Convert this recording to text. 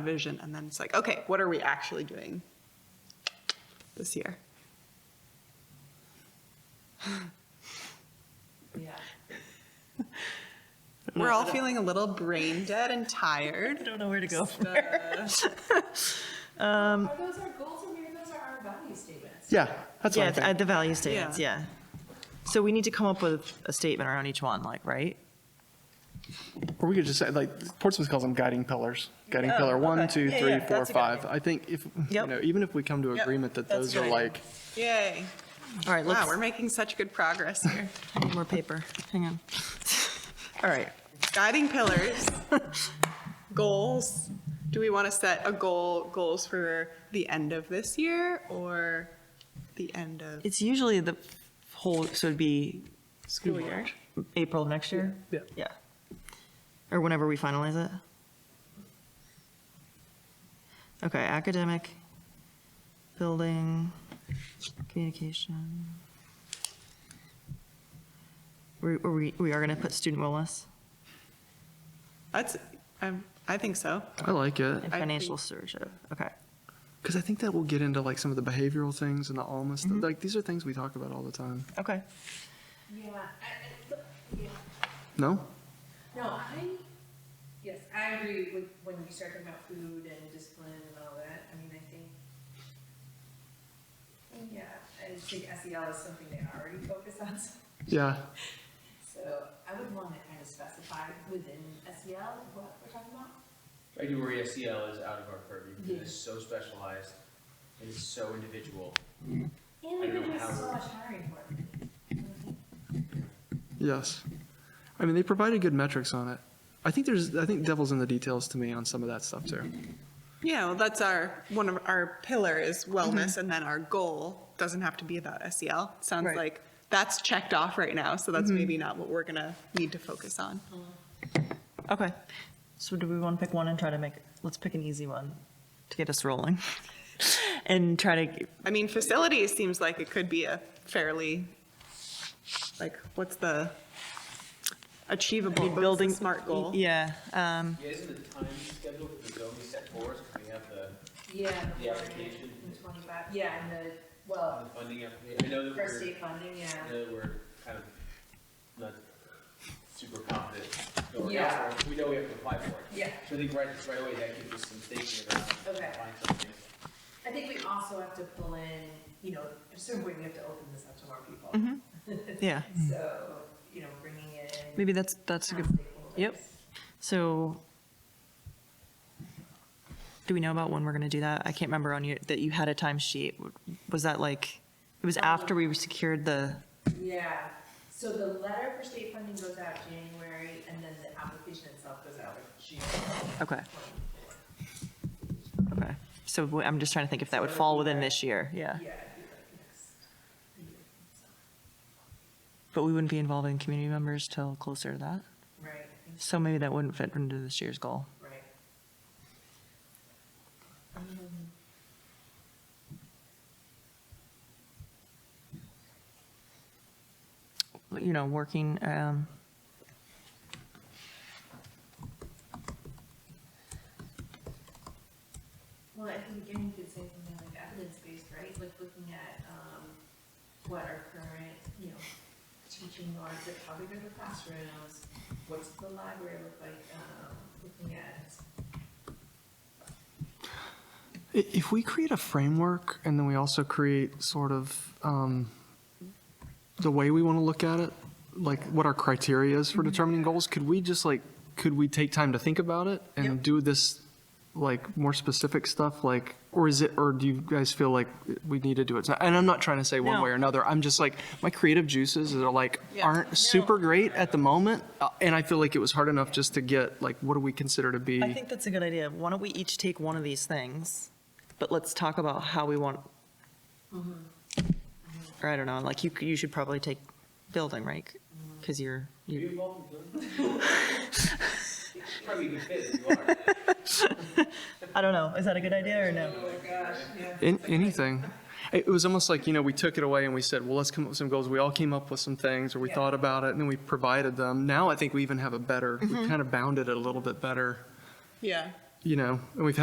vision, and then it's like, okay, what are we actually doing this year? Yeah. We're all feeling a little brain dead and tired. Don't know where to go. Are those our goals or maybe those are our value statements? Yeah, that's what Yeah, I th- think. uh, the value statements, yeah. So we need to come up with a statement around each one, like, right? Or we could just say, like, Portsmouth calls them guiding pillars. Guiding pillar one, Oh, okay. two, Yeah, three, yeah, four, that's a good five. I think if, you Yep. know, even if we come to Yep, agreement that that's those a are good idea. like, Yay. All right, Wow, let's, we're making such good progress here. I need more paper, hang on. All right, Guiding pillars, goals. Do we want to set a goal, goals for the end of this year or the end of it's usually the whole, so it'd be school year? April of next year? Yeah. Yeah. Or whenever we finalize it? Okay, academic, building, communication. We, we, we are gonna put student wellness That's, um, I think so. I like it. and I financial think- stewardship, okay. Because I think that will get into like some of the behavioral things and the almost, Mm-hmm. like, these are things we talk about all the time. Okay. Yeah. I- I- yeah. No? No, I, yes, I agree with when you start talking about food and discipline and all that. I mean, I think, yeah, I just think SEL is something they already focus on. so- Yeah, So I would want to kind of specify within SEL what we're talking about. February SEL is out of our purview Yeah. because it's so specialized and it's so individual. And we I don't could do know how so we're- much hiring for it. yes. I mean, they provided good metrics on it. I think there's, I think devil's in the details to me on some of that stuff too. Yeah, well, that's our, one of our pillar is wellness, and then our goal doesn't have to be about SEL. Sounds Right. like that's checked off right now, so that's maybe not what we're gonna need to focus on. Okay. So do we want to pick one and try to make, let's pick an easy one to get us rolling and try to, I mean, facilities seems like it could be a fairly, like, what's the achievable building- building smart goal? yeah, um, Yeah, isn't the time schedule for the zone we set for us, 'Cause we have the, Yeah. The application. And Twenty-five, yeah, and the, well, the funding application? I know that First we're, state funding, yeah. I know that we're kind of not super confident going Yeah. out for it. We know we have to apply for it. Yeah. So I think right, right away, that gives us some thinking about Okay. applying something. I think we also have to pull in, you know, at a certain point, we have to open this up to more people. yeah. So, you know, bringing in Mm. Maybe that's, that's a town good. stakeholders. Yep. So do we know about when we're going to do that? I can't remember on your, that you had a timesheet. Was that like, it was after we secured the, Yeah, so the letter for state funding goes out January, and then the application itself goes out in June. Mm-hmm. okay. Okay. So wh- I'm just trying to think if that would fall within this year. Yeah. Yeah, it'd be like next year, so, But we wouldn't be involving community members till closer to that. right, I think So maybe that wouldn't fit into this year's goal. Right. You know, working, um, Well, I think again, you could say something like evidence-based, right? Like looking at, um, what our current, you know, teaching norms, like how big are the classrooms? What's the library look like, um, looking at, I- If we create a framework and then we also create sort of um, the way we want to look at it, like what our criteria is Mm-hmm. for determining goals, could we just like, could we take time to think about it and do this like more specific stuff? Like, or is it, or do you guys feel like we need to do it? And I'm not trying to say one No. way or another. I'm just like, my creative juices are like, Yeah. aren't super great at the moment. uh, And I feel like it was hard enough just to get like, what do we consider to be? I think that's a good idea. Why don't we each take one of these things, but let's talk about how we want. Or I don't know, like you, you should probably take building, right? Because you're, Are you you, involved in building? Probably a good fit if you are. I don't know, is that a good idea or no? oh my gosh, yeah. In, anything. It was almost like, you know, we took it away and we said, well, let's come up with some goals. We all came up with some things, or we Yeah. thought about it, and then we provided them. Now I think we even have a better, we kind of bounded it a little bit better, Yeah. you know, and we've had